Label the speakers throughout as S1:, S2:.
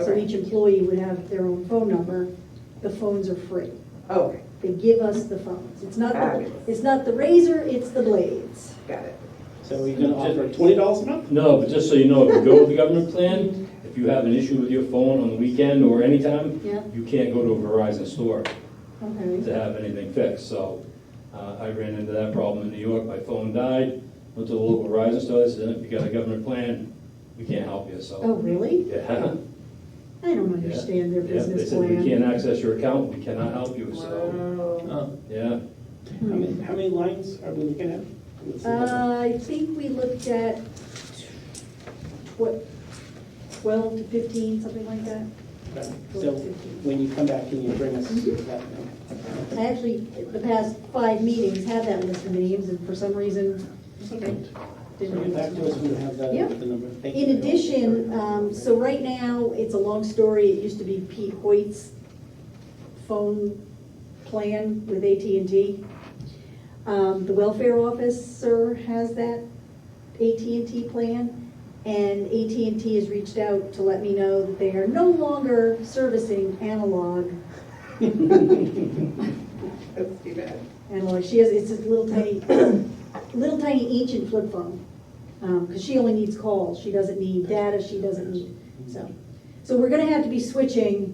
S1: So
S2: Okay.
S1: each employee would have their own phone number. The phones are free.
S2: Oh, okay,
S1: They give us the phones. It's not, the
S2: Fabulous.
S1: it's not the razor, it's the blades.
S2: got it.
S3: So you're gonna offer twenty dollars a month?
S4: No, but just so you know, if you go with the government plan, if you have an issue with your phone on the weekend or anytime,
S1: Yeah.
S4: you can't go to a Verizon store
S1: Okay.
S4: to have anything fixed, so uh, I ran into that problem in New York, my phone died, went to the local Verizon store, they said, if you got a government plan, we can't help you,
S1: Oh,
S4: so.
S1: really?
S4: Yeah.
S1: I don't understand their
S4: Yeah,
S1: business
S4: They said, we
S1: plan.
S4: can't access your account, we cannot help you, so,
S2: Wow.
S3: uh, Oh.
S4: yeah.
S3: How many, how many lines are we looking at? Let's see.
S1: Uh, I think we looked at what, 12 to 15, something like that.
S3: Okay. So when you come back, can you bring us
S1: Mm-hmm.
S3: that?
S1: I actually, the past five meetings, had that list of names, and for some reason,
S3: It's okay.
S1: didn't.
S3: Bring it back to us when you have that,
S1: Yeah.
S3: the number. Thank you
S1: In
S3: very much.
S1: addition, um, so right now, it's a long story, it used to be Pete Hoyt's phone plan with AT&T. Um, The welfare officer has that AT&T plan, and AT&T has reached out to let me know that they are no longer servicing analog.
S2: That's too bad.
S1: Analog, uh, she has, it's a little tiny, little tiny ancient flip phone, because she only needs calls, she doesn't need data, she doesn't need, so. So we're gonna have to be switching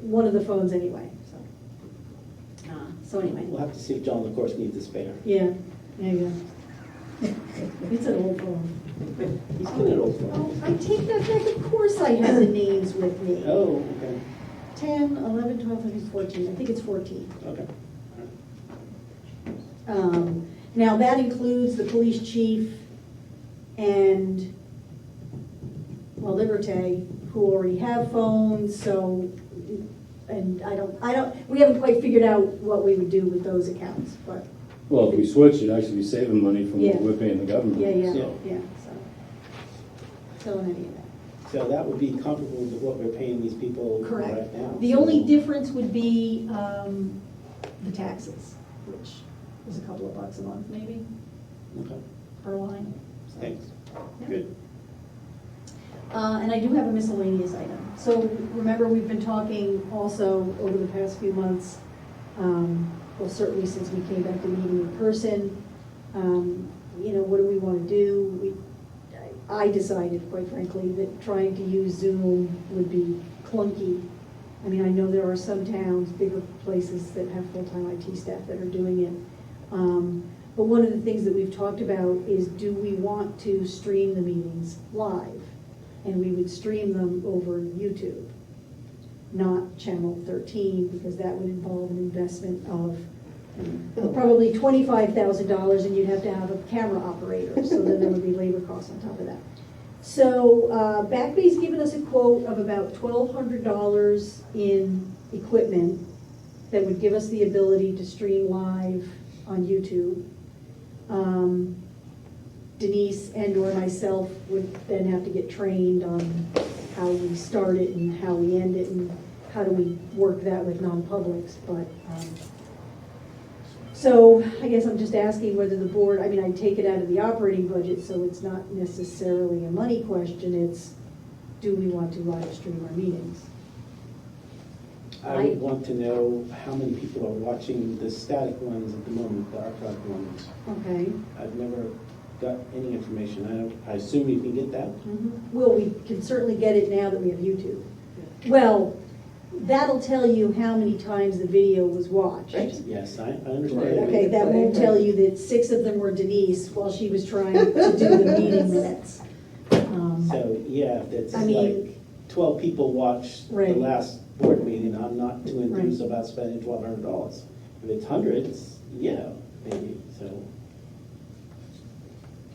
S1: one of the phones anyway, so. Uh, So
S3: We'll
S1: anyway,
S3: have to see if John, of course, needs a spare.
S1: yeah, there you go. It's an old phone.
S3: He's good at old
S1: Oh,
S3: phone.
S1: I take that back, of course I have the names with me.
S3: Oh, okay,
S1: 10, 11, 12, 13, 14, I think it's 14.
S3: okay.
S1: Um, Now, that includes the police chief and, well, Liberté, who already have phones, so, and I don't, I don't, we haven't quite figured out what we would do with those accounts, but,
S4: Well, if we switch, it'd actually be saving money
S1: from what Yeah. we're
S4: paying the government.
S1: yeah, yeah,
S3: So-
S1: yeah, so. So in any event.
S3: So that would be comparable to what we're paying these people right
S1: Correct.
S3: now.
S1: The only difference would be um, the taxes, which is a couple of bucks a month maybe,
S3: Okay,
S1: per line. so.
S3: Thanks,
S1: Yeah.
S3: good.
S1: Uh, And I do have a miscellaneous item. So remember, we've been talking also over the past few months, um, well, certainly since we came back to meeting in person, um, you know, what do we want to do? We- I- I decided, quite frankly, that trying to use Zoom would be clunky. I mean, I know there are some towns, bigger places that have full-time IT staff that are doing it. Um, But one of the things that we've talked about is, do we want to stream the meetings live? and we would stream them over YouTube, not Channel 13, because that would involve an investment of probably $25,000, and you'd have to have a camera operator, so then there would be labor costs on top of that. So uh, Backbay's given us a quote of about $1,200 in equipment that would give us the ability to stream live on YouTube. Um, Denise and/or myself would then have to get trained on how we start it and how we end it and how do we work that with non-publics, but, um, so I guess I'm just asking whether the board, I mean, I take it out of the operating budget, so it's not necessarily a money question, it's, do we want to live stream our meetings?
S3: I
S1: Right.
S3: would want to know how many people are watching the static ones at the moment, the archived ones.
S1: Okay,
S3: I've never got any information. I don't, I assume you can get that?
S1: Mm-hmm. well, we can certainly get it now that we have YouTube. Well, that'll tell you how many times the video was watched.
S3: Yes, I, I
S2: Right.
S3: understand.
S1: Okay, that won't tell you that six of them were Denise while she was trying to do the meeting minutes. Um,
S3: So, yeah, if it's
S1: I
S3: like
S1: mean,
S3: twelve people watched the
S1: Right.
S3: last board meeting, I'm not too
S1: Right.
S3: enthused about spending twelve hundred dollars. If it's hundreds, yeah, maybe, so.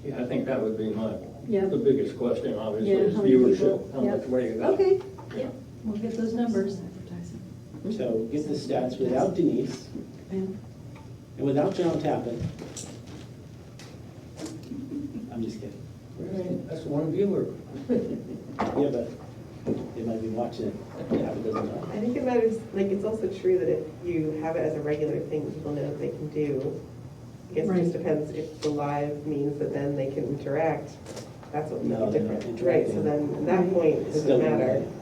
S5: Yeah, I think that would be my,
S1: Yeah.
S5: the biggest question, obviously,
S1: Yeah,
S5: is
S1: how many people?
S5: viewership. How
S1: Yeah.
S5: much weight is that?
S1: okay, yeah, we'll get those numbers. Mm-hmm.
S3: So get the stats without Denise
S1: Yeah.
S3: and without John Tappan. I'm just kidding.
S5: Right, That's one viewer.
S3: Yeah, but they might be watching it. Tappan doesn't know.
S2: I think about it, like, it's also true that if you have it as a regular thing, people know that they can do. I guess it
S1: Right.
S2: just depends if the live means that then they can interact, that's what makes
S3: No,
S2: it
S3: they're not
S2: different. Right, so
S3: interacting.
S2: then, at that point, it
S3: It's still
S2: doesn't matter.
S3: in